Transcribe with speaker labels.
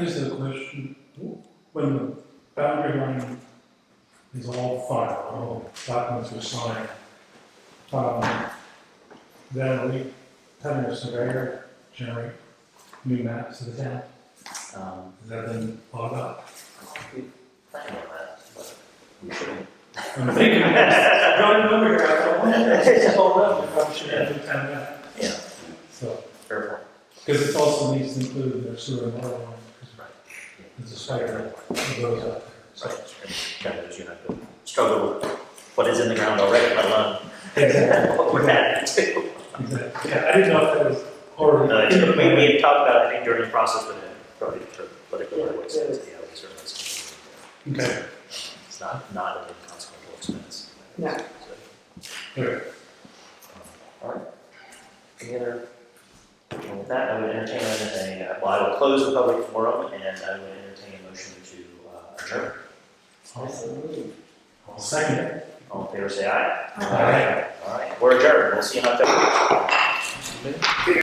Speaker 1: I just have a question. When the boundary line is all filed, all documents are signed, um, then we, having a surveyor generate new maps of the town,
Speaker 2: Um,
Speaker 1: has that been thought about?
Speaker 2: I don't know that, but we shouldn't.
Speaker 1: I'm thinking, I don't remember here, I thought, well, that's just all up, we probably should have the town map.
Speaker 2: Yeah.
Speaker 1: So,
Speaker 2: Fair point.
Speaker 1: because it also needs to include their sewer and water line, because there's a spider that goes up there.
Speaker 2: So, kind of, you have to struggle with what is in the ground already, let alone
Speaker 1: Exactly.
Speaker 2: what we're adding to.
Speaker 1: Exactly. Yeah, I didn't know if that was already.
Speaker 2: No, it's- we, we had talked about, it, I think, during the process, but it probably for political ways, yeah, we certainly. it's-
Speaker 1: Okay.
Speaker 2: It's not, not an inconsequential expense.
Speaker 3: No.
Speaker 1: Alright.
Speaker 2: Alright. Any other, and with that, I would entertain a, well, I will close the public forum and I would entertain a motion to uh, adjourn.
Speaker 1: I'll second it.
Speaker 2: All in favor, say aye.
Speaker 1: Aye.
Speaker 2: Alright, we're adjourned, we'll see you in October.